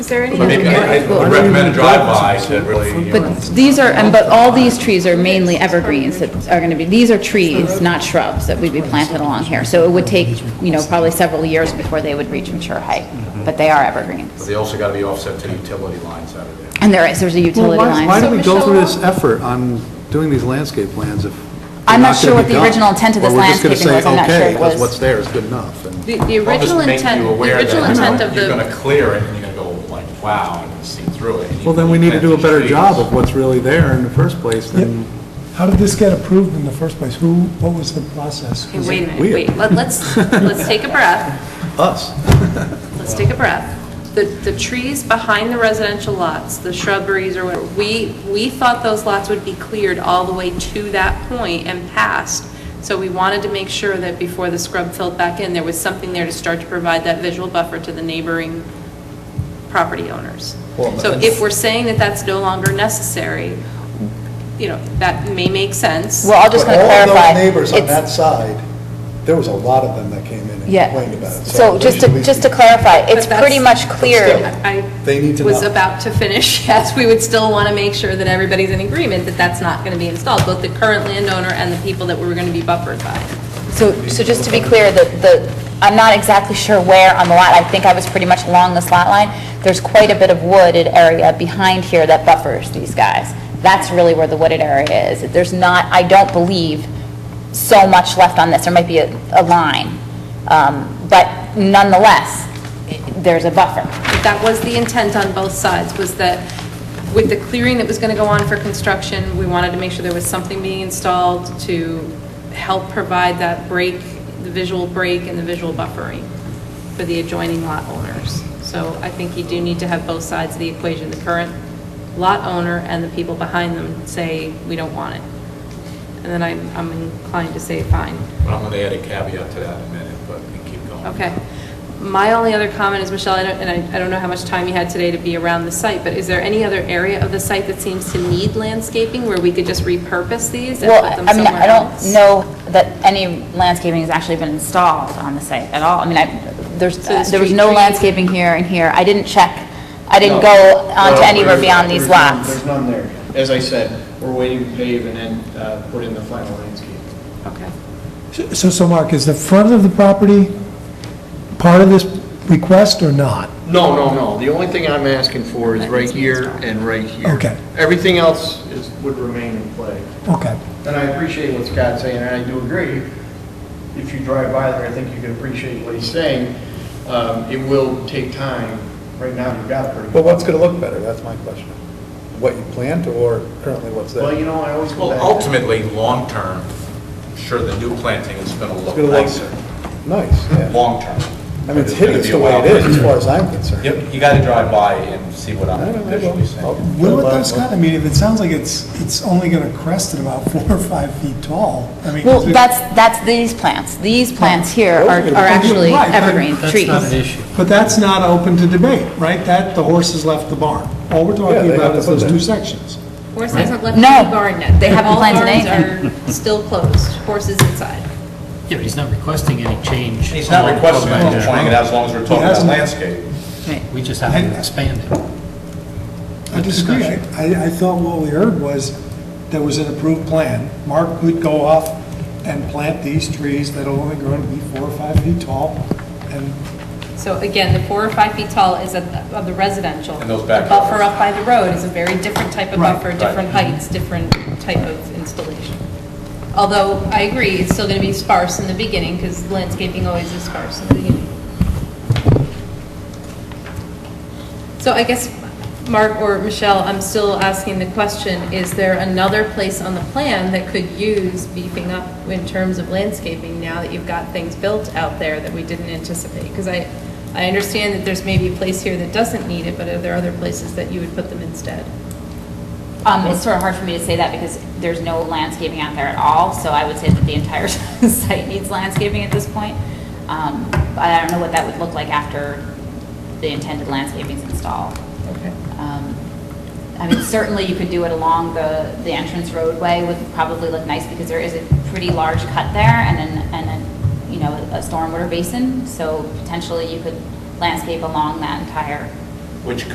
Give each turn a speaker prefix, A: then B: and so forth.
A: Is there any?
B: But maybe I I would recommend a drive-by to really, you know,
C: But these are, and but all these trees are mainly evergreens that are going to be, these are trees, not shrubs, that would be planted along here. So it would take, you know, probably several years before they would reach mature height,
B: Mm-hmm.
C: but they are
B: but
C: evergreens.
B: they also gotta be offset to utility lines out of there.
C: And there is, there's a
D: Well,
C: utility
D: why,
C: line.
D: why
C: So
D: do we go
A: Michelle-
D: through this effort on doing these landscape plans if? they're
C: I'm not
D: gonna
C: sure what the
D: be done?
C: original intent of
D: Or
C: this
D: we're just gonna
C: landscaping
D: say,
C: was, I'm not sure
D: okay,
C: it
D: because
C: was-
D: what's there is good enough, and
E: The the
B: I'll just
E: original
B: make
E: intent,
B: you
E: the
B: aware that,
E: original
B: you know,
E: intent of
B: You're gonna
E: the,
B: clear it, and you're gonna go like, wow, and see through it. and you-
D: well, then we need to do a better
B: you-
D: job of what's really there in the first place than,
F: How did this get approved in the first place? Who, what was the process?
E: Okay, wait a minute,
D: weird?
E: wait, let- let's, let's take a breath,
D: us.
E: let's take a breath. The, the trees behind the residential lots, the shrubberies or whatever, we, we thought those lots would be cleared all the way to that point and past. So we wanted to make sure that before the scrub filled back in, there was something there to start to provide that visual buffer to the neighboring property owners. So if we're saying that that's no longer necessary, you know, that may make sense.
C: Well, I'm just going to clarify. It's-
D: side, there was a lot of them that came in
C: Yeah, so just to, just to clarify, it's
E: But
C: pretty
E: that's-
C: much clear.
E: I
D: They need to
E: was
D: know.
E: about to finish, yes, we would still want to make sure that everybody's in agreement that that's not going to be installed, both the current landowner and the people that we're going to be buffered by.
C: So, so just to be clear, the, the, I'm not exactly sure where on the lot, I think I was pretty much along this lot line. There's quite a bit of wooded area behind here that buffers these guys. That's really where the wooded area is. There's not, I don't believe, so much left on this, there might be a, a line. Um, But nonetheless, i- there's a buffer.
E: But That was the intent on both sides, was that with the clearing that was going to go on for construction, we wanted to make sure there was something being installed to help provide that break, the visual break and the visual buffering for the adjoining lot owners. So I think you do need to have both sides of the equation, the current lot owner and the people behind them say, we don't want it. And then I'm I'm inclined to say, fine.
B: But I'm gonna add a caveat to that in a minute, but we can keep going.
E: Okay. My only other comment is, Michelle, I don't- and I I don't know how much time you had today to be around the site, but is there any other area of the site that seems to need landscaping where we could just repurpose these and
C: Well,
E: put them
C: I mean,
E: somewhere
C: I
E: else?
C: don't know that any landscaping has actually been installed on the site at all. I mean, I, there's,
E: So it's
C: there was
E: Uh, tree-
C: no
E: trees-
C: landscaping here and here. I didn't check, I didn't
G: No.
C: go onto
G: No,
C: anywhere
G: there's-
C: beyond these
G: there's none-
C: lots.
G: There's none there. As I said, we're waiting to pave and then uh, put in the final landscape.
E: Okay.
F: So, so Mark, is the front of the property part of this request or not?
G: No, no, no. The only thing I'm asking for is right here and right here.
F: Okay.
G: Everything else is, would remain in play.
F: Okay.
G: And I appreciate what Scott's saying, and I do agree. If you drive by there, I think you can appreciate what he's saying. Um, It will take time. Right now, you've got a pretty.
D: But what's gonna look better, that's my question. What you planned or currently what's there?
G: Well, you know, I always
B: Well,
G: go back. to-
B: ultimately, long-term, sure, the new planting is gonna look
D: gonna look-
B: nicer,
D: Nice, yeah.
B: long-term.
D: I mean, it's
B: But gonna
D: hideous
B: be
D: the
B: a
D: way
B: wild
D: it is,
B: picture.
D: as far as I'm concerned.
B: Yep, you gotta drive by and see what
D: I
B: I'm
D: don't know, Oh. I
B: visually
D: will.
B: saying.
F: What about those kind, I mean, if it sounds like it's, it's only going to crest at about four or five feet tall, I mean.
C: Well,
F: is it-
C: that's, that's these plants. These
G: Oh,
C: plants here are,
D: Those are-
C: are actually
F: Right, but-
C: evergreen trees.
F: But that's not open to debate, right? That, the horse has left the barn. All
D: Yeah, they
F: we're talking
D: have
F: about
D: to
F: is
D: put
F: those
D: that.
F: two sections.
E: Horse hasn't left
C: No,
E: any barn yet.
C: they haven't planted
E: All barns are still closed, horses inside.
H: Yeah, but he's not requesting any change.
B: He's
D: Oh,
B: not requesting it, he's pointing it out as long as we're talking about
F: hasn't-
B: landscape.
C: Right.
H: We just have to expand it.
F: I disagree. I, I- I thought what we heard was there was an approved plan. Mark could go off and plant these trees that are only going to be four or five feet tall. And
E: So again, the four or five feet tall is at the- of the residential.
B: And those
E: The
B: backyards.
E: buffer up by the road is a very different type of
F: Right.
E: buffer, different heights, different type of installation. Although, I agree, it's still going to be sparse in the beginning, because landscaping always is sparse in the beginning. So I guess, Mark or Michelle, I'm still asking the question, is there another place on the plan that could use beefing up in terms of landscaping now that you've got things built out there that we didn't anticipate? Because I, I understand that there's maybe a place here that doesn't need it, but are there other places that you would put them instead?
C: Um, it's sort of hard for me to say that because there's no landscaping out there at all, so I would say that the entire site needs landscaping at this point. Um, but I don't know what that would look like after the intended landscaping's installed.
E: Okay.
C: Um, I mean, certainly you could do it along the, the entrance roadway would probably look nice because there is a pretty large cut there and then, and then, you know, a stormwater basin, so potentially you could landscape along that entire
B: Which